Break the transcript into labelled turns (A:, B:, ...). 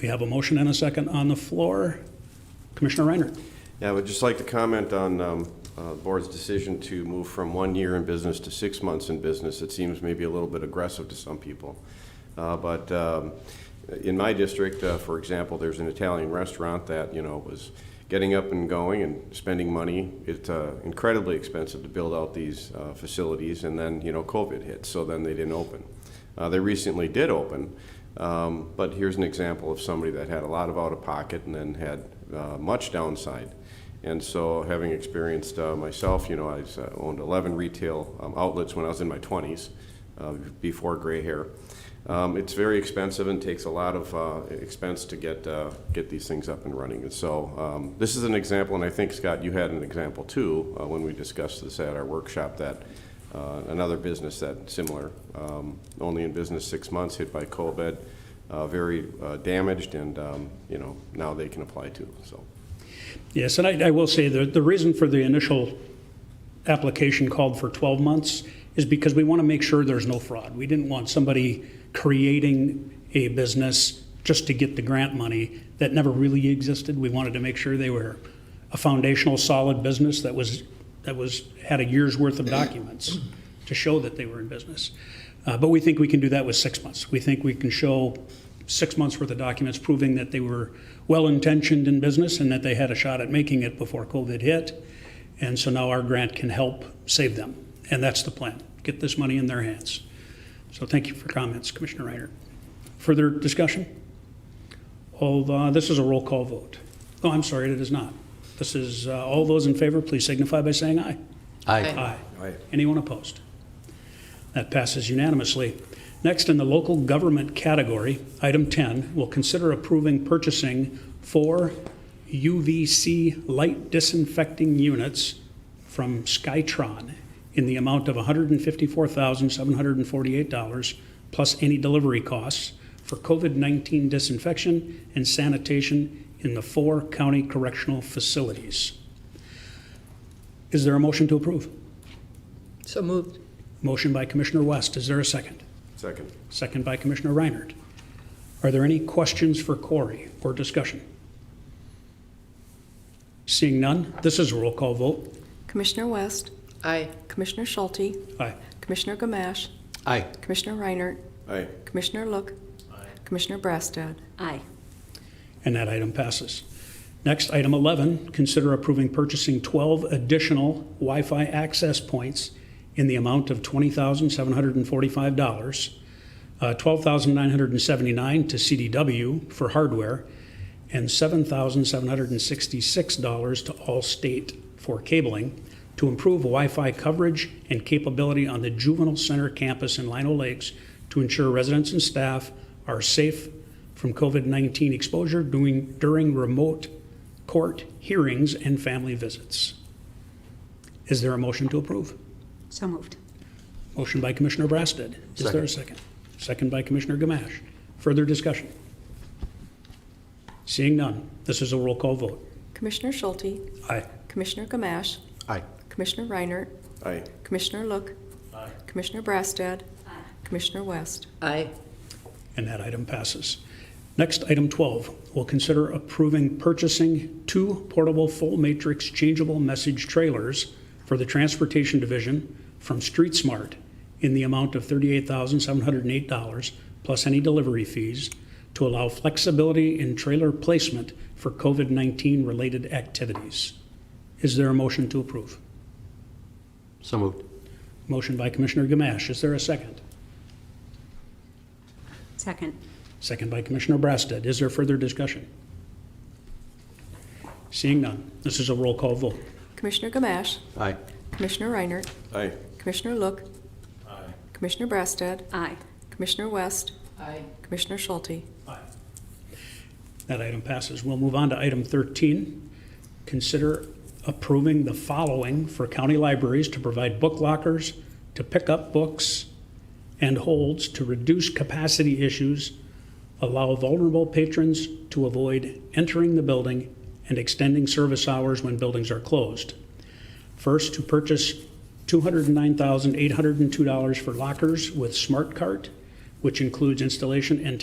A: We have a motion and a second on the floor. Commissioner Reiner.
B: Yeah, I would just like to comment on um, uh, the board's decision to move from one year in business to six months in business. It seems maybe a little bit aggressive to some people. Uh, But um, in my district, uh, for example, there's an Italian restaurant that, you know, was getting up and going and spending money. It's uh, incredibly expensive to build out these uh, facilities, and then, you know, COVID hit, so then they didn't open. Uh, They recently did open, um, but here's an example of somebody that had a lot of out-of-pocket and then had uh, much downside. And so, having experienced uh, myself, you know, I was, uh, owned 11 retail um, outlets when I was in my 20s, uh, before gray hair. Um, it's very expensive and takes a lot of uh, expense to get uh, get these things up and running. And so, um, this is an example, and I think Scott, you had an example too uh, when we discussed this at our workshop that uh, another business that similar, um, only in business six months, hit by COVID, uh, very uh, damaged, and um, you know now they can apply too. So.
A: Yes, and I, I will say that the reason for the initial application called for 12 months is because we want to make sure there's no fraud. We didn't want somebody creating a business just to get the grant money that never really existed. We wanted to make sure they were a foundational, solid business that was, that was, had a year's worth of documents to show that they were in business. Uh, But we think we can do that with six months. We think we can show six months' worth of documents proving that they were well-intentioned in business and that they had a shot at making it before COVID hit. And so now our grant can help save them. And that's the plan, get this money in their hands. So thank you for comments, Commissioner Reiner. Further discussion? All, uh, this is a roll call vote. Oh, I'm sorry, it is not. This is, uh, all those in favor, please signify by saying aye.
C: Aye.
A: Aye. Anyone opposed? That passes unanimously. Next, in the local government category, item 10, will consider approving purchasing four UVC light disinfecting units from Skytron in the amount of $154,748 plus any delivery costs for COVID-19 disinfection and sanitation in the four county correctional facilities. Is there a motion to approve?
C: So moved.
A: Motion by Commissioner West. Is there a second?
B: Second.
A: Second by Commissioner Reinert. Are there any questions for Corey or discussion? Seeing none, this is a roll call vote.
D: Commissioner West,
C: Aye.
D: Commissioner Schulte,
A: Aye.
D: Commissioner Gamache,
C: Aye.
D: Commissioner Reinert,
B: Aye.
D: Commissioner Look, Commissioner Brassad.
C: Aye.
A: And that item passes. Next, item 11, consider approving purchasing 12 additional Wi-Fi access points in the amount of $20,745, uh, $12,979 to CDW for hardware, and $7,766 to Allstate for cabling to improve Wi-Fi coverage and capability on the Juvenile Center campus in Lino Lakes to ensure residents and staff are safe from COVID-19 exposure during, during remote court hearings and family visits. Is there a motion to approve?
E: So moved.
A: Motion by Commissioner Brasted. Is there a second? Second by Commissioner Gamache. Further discussion? Seeing none, this is a roll call vote.
D: Commissioner Schulte,
A: Aye.
D: Commissioner Gamache,
C: Aye.
D: Commissioner Reinert,
B: Aye.
D: Commissioner Look, Commissioner Brassad, Commissioner West.
C: Aye.
A: And that item passes. Next, item 12, will consider approving purchasing two portable full matrix changeable message trailers for the Transportation Division from Street Smart in the amount of $38,708 plus any delivery fees to allow flexibility in trailer placement for COVID-19 related activities. Is there a motion to approve?
C: So moved.
A: Motion by Commissioner Gamache. Is there a second?
E: Second.
A: Second by Commissioner Brasted. Is there further discussion? Seeing none, this is a roll call vote.
D: Commissioner Gamache,
C: Aye.
D: Commissioner Reinert,
B: Aye.
D: Commissioner Look, Commissioner Brassad,
E: Aye.
D: Commissioner West,
C: Aye.
D: Commissioner Schulte.
A: That item passes. We'll move on to item 13. Consider approving the following for county libraries to provide book lockers, to pick up books and holds, to reduce capacity issues, allow vulnerable patrons to avoid entering the building, and extending service hours when buildings are closed. First, to purchase $209,802 for lockers with Smart Cart, which includes installation and